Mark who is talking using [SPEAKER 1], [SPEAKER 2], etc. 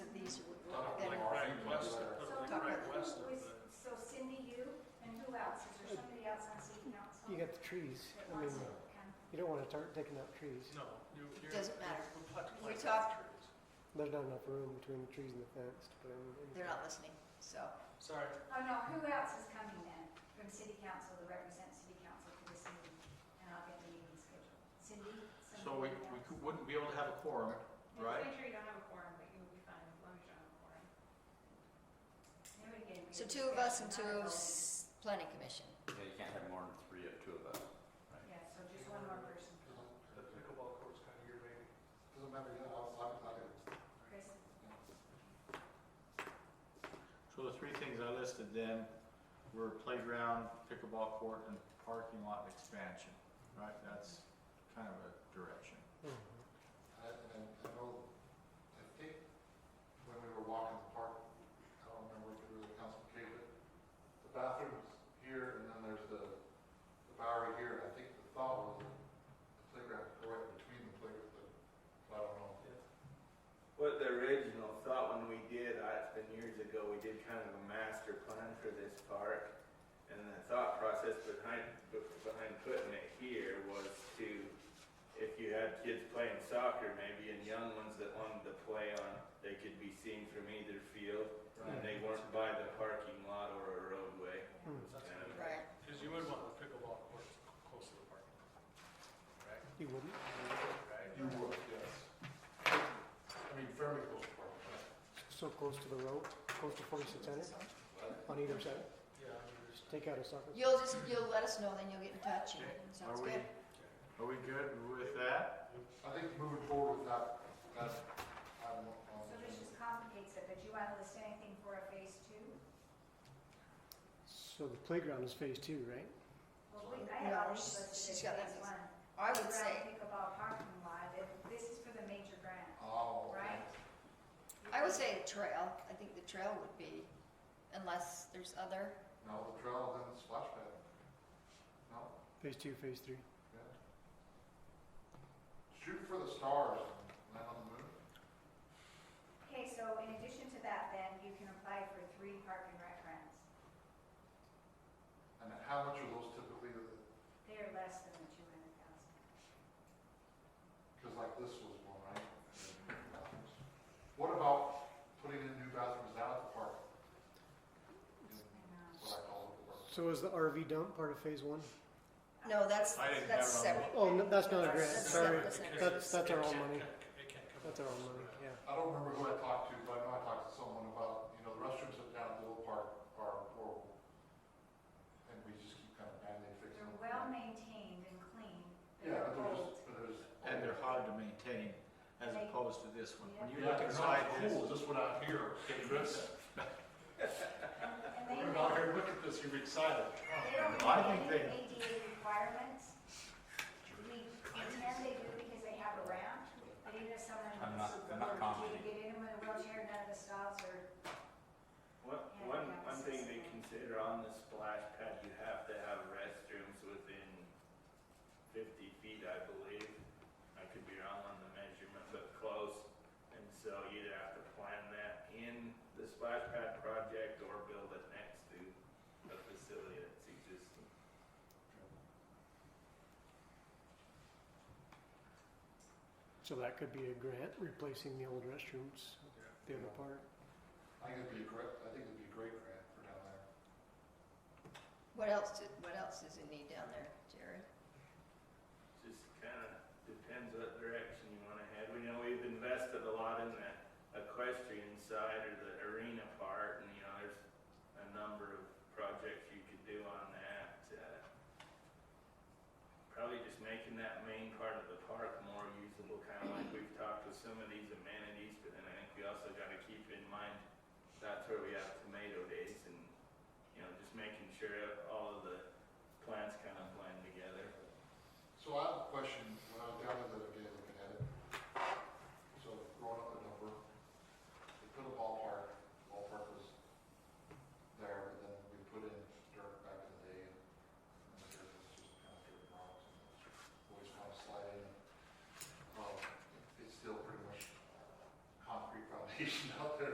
[SPEAKER 1] you got the trees. I mean, you don't want to start taking out trees.
[SPEAKER 2] No, you, you're.
[SPEAKER 3] Doesn't
[SPEAKER 2] you're-
[SPEAKER 3] matter.
[SPEAKER 2] We'll have to
[SPEAKER 3] We're
[SPEAKER 2] plant
[SPEAKER 3] talk-
[SPEAKER 2] trees.
[SPEAKER 1] There's not enough room between the trees and the fence to put anything.
[SPEAKER 3] They're not listening, so.
[SPEAKER 2] Sorry,
[SPEAKER 4] Oh, no, who else is coming then from city council to represent city council for this meeting? And I'll get the meeting scheduled. Cindy?
[SPEAKER 5] So we, we
[SPEAKER 4] somebody
[SPEAKER 5] cou- wouldn't be able to have a quorum,
[SPEAKER 6] Just
[SPEAKER 5] Right.
[SPEAKER 6] Make sure you don't have a quorum, but you'll be fine as long as you don't have a quorum.
[SPEAKER 4] else? There we go.
[SPEAKER 3] So two of us and two of s- planning commission.
[SPEAKER 7] Yeah, you can't have more than three of two of us.
[SPEAKER 4] Yeah, so just one more person.
[SPEAKER 2] the pickleball court's kind of your baby.
[SPEAKER 8] Doesn't matter, yeah, I'll, I'll, I'll do it.
[SPEAKER 4] Chris,
[SPEAKER 5] so the three things I listed then were playground, pickleball court, and parking lot expansion, right? That's kind of a direction.
[SPEAKER 1] Mhm.
[SPEAKER 8] I- And I know, I think when we were walking the park, I don't remember if it was the council gave it, the bathroom's here and then there's the the Bowery here. And I think the thought was the playground right between the playground, but I don't know.
[SPEAKER 9] What the original thought when we did, I, it's been years ago, we did kind of a master plan for this park. And the thought process behind, behind putting it here was to, if you had kids playing soccer maybe and young ones that wanted to play on, they could be seen from either field and they weren't by the parking lot or a roadway.
[SPEAKER 1] Mm.
[SPEAKER 2] That's
[SPEAKER 9] Yeah.
[SPEAKER 2] what
[SPEAKER 3] Right.
[SPEAKER 2] it- Cause you would want the pickleball court close to the parking lot. Right?
[SPEAKER 1] You wouldn't?
[SPEAKER 2] Right?
[SPEAKER 8] You would, yes. I mean, fairly close to park, but
[SPEAKER 1] So close to the road, close to 4600 on either side.
[SPEAKER 2] Yeah, I mean, there's-
[SPEAKER 1] Take out a sucker.
[SPEAKER 3] You'll just, you'll let us know, then you'll get in touch, and
[SPEAKER 5] Okay.
[SPEAKER 3] sounds
[SPEAKER 5] Are we-
[SPEAKER 3] good.
[SPEAKER 5] Are we good with that?
[SPEAKER 8] I think moving forward with that, uh, that's, I don't know.
[SPEAKER 4] so this just complicates it, but you want to list anything for a phase two?
[SPEAKER 1] So the playground is phase two, right?
[SPEAKER 4] Well, we, I had
[SPEAKER 3] No,
[SPEAKER 4] already
[SPEAKER 3] she's-
[SPEAKER 4] listed
[SPEAKER 3] she's
[SPEAKER 4] as
[SPEAKER 3] got
[SPEAKER 4] phase
[SPEAKER 3] that.
[SPEAKER 4] one.
[SPEAKER 3] I would say,
[SPEAKER 4] Around pickleball parking lot, and this is for the major grant.
[SPEAKER 8] Oh. okay.
[SPEAKER 4] Right.
[SPEAKER 3] I would say a trail. I think the trail would be, unless there's other,
[SPEAKER 8] No, the trail, then the splash pad. No?
[SPEAKER 1] Phase two, phase three.
[SPEAKER 8] Yeah. Shoot for the stars and land on the moon.
[SPEAKER 4] Okay, so in addition to that, then, you can apply for three park and rec grants.
[SPEAKER 8] And how much are those typically,
[SPEAKER 4] They are less than the two hundred thousand.
[SPEAKER 8] because like this was one, right? And then new bathrooms. What about putting in new bathrooms out at the park? In What I call the park.
[SPEAKER 1] So is the RV dump part of phase one?
[SPEAKER 3] no, that's,
[SPEAKER 5] I didn't
[SPEAKER 3] that's
[SPEAKER 5] have it
[SPEAKER 3] separate.
[SPEAKER 1] Oh,
[SPEAKER 5] on
[SPEAKER 1] no, that's not a grant,
[SPEAKER 3] That's
[SPEAKER 1] sorry.
[SPEAKER 3] separate.
[SPEAKER 2] Because
[SPEAKER 1] That's- that's
[SPEAKER 2] it
[SPEAKER 1] our own
[SPEAKER 2] can't-
[SPEAKER 1] money.
[SPEAKER 2] It can't come.
[SPEAKER 1] That's our own money, yeah.
[SPEAKER 8] I don't remember who I talked to, but I know I talked to someone about, you know, the restrooms up down at the little park are horrible. And we just keep kind of badly fixing
[SPEAKER 4] They're
[SPEAKER 8] them.
[SPEAKER 4] well maintained and clean, but
[SPEAKER 8] Yeah,
[SPEAKER 4] they're
[SPEAKER 8] but they're
[SPEAKER 4] old.
[SPEAKER 8] just, but they're just.
[SPEAKER 5] And they're hard to maintain as opposed to this one. When you
[SPEAKER 8] Yeah,
[SPEAKER 5] look
[SPEAKER 8] they're
[SPEAKER 5] inside
[SPEAKER 8] not
[SPEAKER 5] this,
[SPEAKER 8] cool, just what out here, okay, Chris?
[SPEAKER 4] And they,
[SPEAKER 8] We're out here, look at this, you're excited.
[SPEAKER 4] they don't
[SPEAKER 5] I
[SPEAKER 4] have
[SPEAKER 5] think
[SPEAKER 4] any ADA requirements. We pretend they do because they have a ramp, but even if someone
[SPEAKER 7] I'm
[SPEAKER 4] wants
[SPEAKER 7] not-
[SPEAKER 4] to
[SPEAKER 7] I'm not commenting.
[SPEAKER 4] get in with a wheelchair, none of the stalls are,
[SPEAKER 9] One,
[SPEAKER 4] Yeah,
[SPEAKER 9] one,
[SPEAKER 4] yeah,
[SPEAKER 9] one thing to
[SPEAKER 4] six.
[SPEAKER 9] consider on the splash pad, you have to have restrooms within fifty feet, I believe. I could be wrong on the measurement, but close. And so you either have to plan that in the splash pad project or build it next to the facility that's existing.
[SPEAKER 1] So that could be a grant replacing the old restrooms, the other part.
[SPEAKER 8] I think it'd be a great, I think it'd be a great grant for down there.
[SPEAKER 3] What else, do- what else does it need down there, Jerry?
[SPEAKER 9] Just kinda depends what direction you wanna head. We know we've invested a lot in the equestrian side or the arena part and, you know, there's a number of projects you could do on that. uh, Probably just making that main part of the park more usable, kinda like we've talked with some of these amenities, but then I think we also gotta keep in mind that's where we have tomato days and, you know, just making sure